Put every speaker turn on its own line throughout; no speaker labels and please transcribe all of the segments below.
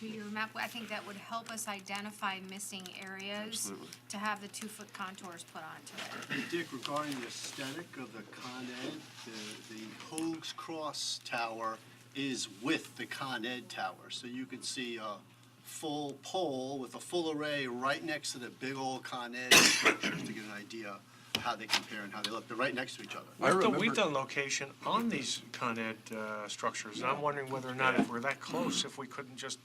do your map, I think that would help us identify missing areas
Absolutely.
to have the two-foot contours put onto it.
Dick, regarding the aesthetic of the Con Ed, the, the Hoag's Cross Tower is with the Con Ed Tower. So you can see a full pole with a full array right next to the big old Con Ed structures to get an idea how they compare and how they look. They're right next to each other.
I
We've done-
remember-
We've done location on these Con Ed uh, structures, and I'm wondering whether or not if we're that close, if we couldn't just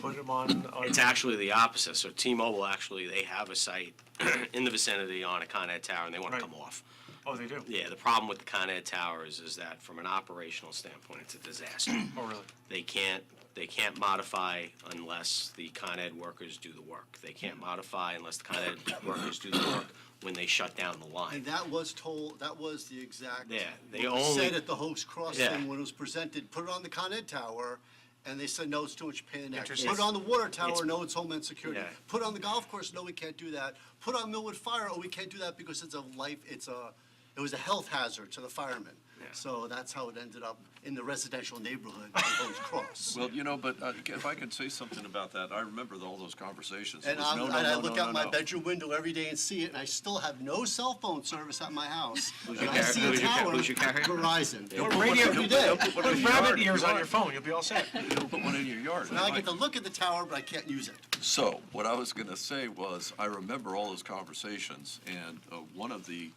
put them on. on-
It's actually the opposite. So T-Mobile actually, they have a site in the vicinity on a Con Ed tower and they want to
Right.
come off.
Oh, they do?
Yeah, the problem with the Con Ed tower is, is that from an operational standpoint, it's a disaster.
Oh, really?
They can't, they can't modify unless the Con Ed workers do the work. They can't modify unless the Con Ed workers do the work when they shut down the
And
line.
that was told, that was the exact.
Yeah, they
what was Said
only-
at the Hoax Cross
Yeah.
thing when it was presented, put it on the Con Ed Tower, and they said, no, it's too much pain in the neck. Put
Interesting.
it on the water tower,
It's-
no, it's Homeland Security.
Yeah.
Put it on the golf course, no, we can't do that. Put on Millwood Fire, oh, we can't do that because it's a life, it's a, it was a health hazard to the firemen. So that's how it ended up in the residential neighborhood of Hoax Cross.
Well, you know, but uh, if I could say something about that, I remember all those conversations. It
And
was,
I'm,
no,
and
no,
I
no,
look
no,
out
no,
my
no.
bedroom window every day and see it, and I still have no cell phone service at my house.
Who's
And
your
I
car-
see a
who's your car-
tower,
who's your carrier?
Verizon.
Don't
But what
radio-
do you do?
Don't put one in
Put
your
rabbit
yard,
ears
you
on
know.
your phone, you'll be all set.
Don't Put one in your yard.
Now I
Like-
get to look at the tower, but I can't use it.
So, what I was gonna say was, I remember all those conversations, and uh, one of the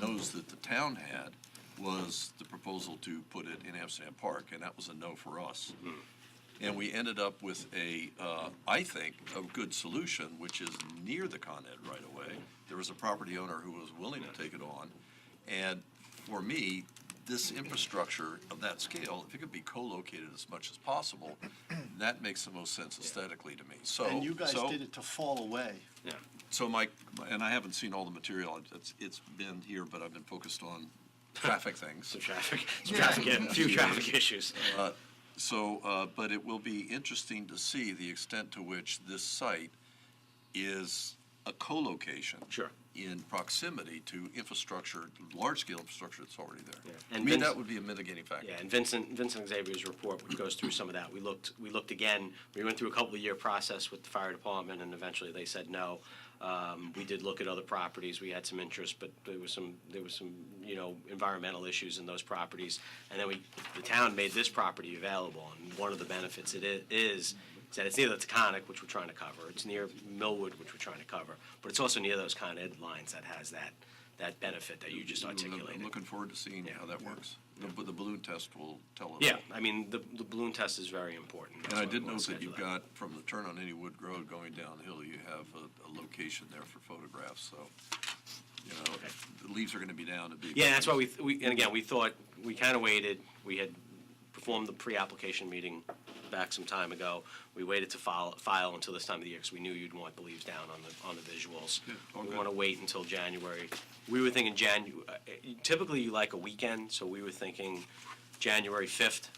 no's that the town had was the proposal to put it in Amsterdam Park, and that was a no for us. And we ended up with a, uh, I think, a good solution, which is near the Con Ed right away. There was a property owner who was willing to take it on, and for me, this infrastructure of that scale, if it could be co-located as much as possible, that makes the most sense aesthetically to me, so.
And you guys
so-
did it to fall away.
Yeah.
so Mike, and I haven't seen all the material, it's, it's been here, but I've been focused on traffic things.
Some traffic, some traffic, a few traffic issues.
Uh, So, uh, but it will be interesting to see the extent to which this site is a co-location.
Sure.
In proximity to infrastructure, large-scale infrastructure that's already there.
Yeah.
I
And
mean,
Vince-
that would be a mitigating factor.
Yeah, and Vincent, Vincent Xavier's report, which goes through some of that, we looked, we looked again, we went through a couple of year process with the fire department, and eventually they said no. Um, we did look at other properties, we had some interest, but there was some, there was some, you know, environmental issues in those properties. And then we, the town made this property available, and one of the benefits it i- is, is that it's near the Taconic, which we're trying to cover, it's near Millwood, which we're trying to cover, but it's also near those Con Ed lines that has that, that benefit that you just
I'm- I'm
articulated.
looking forward to seeing how that works. The b- the balloon test will tell us.
Yeah, I mean, the, the balloon test is very important.
And I
That's why
did
we wanna
note that you've
schedule
got, from the turn on Anywood Road going downhill, you have a, a location there for photographs, so, you know, the leaves are gonna be down to be.
Yeah, that's why we, th- we, and again, we thought, we kind of waited, we had performed the pre-application meeting back some time ago. We waited to file, file until this time of the year, because we knew you'd want the leaves down on the, on the visuals.
Yeah, all
We
good.
want to wait until January. We were thinking Janu, uh, typically you like a weekend, so we were thinking January fifth,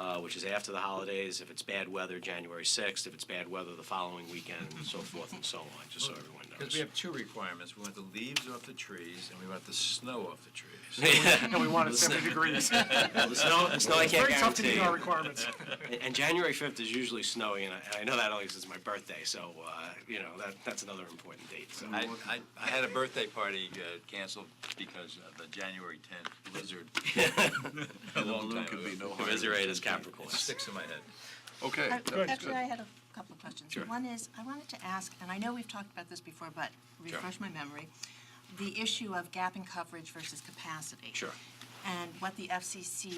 uh, which is after the holidays. If it's bad weather, January sixth, if it's bad weather, the following weekend, and so forth and so on, just so everyone knows.
Because we have two requirements, we want the leaves off the trees, and we want the snow off the trees.
And we want it 70 degrees.
Well, the snow, the snow I
It's
can't
very tough to
guarantee.
meet our requirements.
And- And January 5th is usually snowy, and I, and I know that only 'cause it's my birthday, so, uh, you know, that, that's another important date, so.
I, I, I had a birthday party uh, canceled because of the January tenth blizzard. A
And the
long
balloon
time
could be no
ago.
The
higher.
Visitor
than
is
17.
Capricorn.
It sticks in my head.
Okay,
I-
that was
Actually, Uh, I
good.
had a couple of questions.
Sure.
One is, I wanted to ask, and I know we've talked about this before, but refresh my memory, the issue of gap in coverage versus capacity.
Sure.
And what the FCC,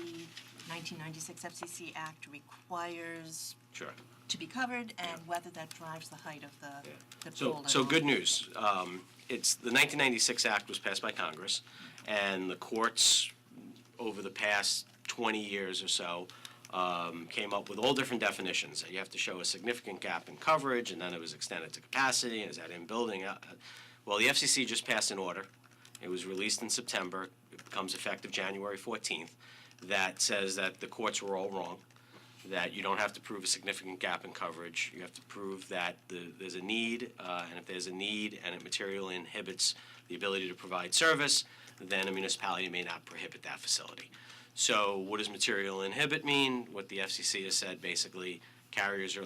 1996 FCC Act requires
Sure.
to be covered, and whether that drives the height of the, the
So,
pole.
so good news. Um, It's, the 1996 Act was passed by Congress, and the courts, over the past 20 years or so, um, came up with all different definitions. that You have to show a significant gap in coverage, and then it was extended to capacity, and is that in building? Uh, uh, Well, the FCC just passed an order. It was released in September, it becomes effective January 14th, that says that the courts were all wrong that you don't have to prove a significant gap in coverage. You have to prove that the, there's a need, uh, and if there's a need and it materially inhibits the ability to provide service, then a municipality may not prohibit that facility. So what does material inhibit mean? What the FCC has said basically carriers are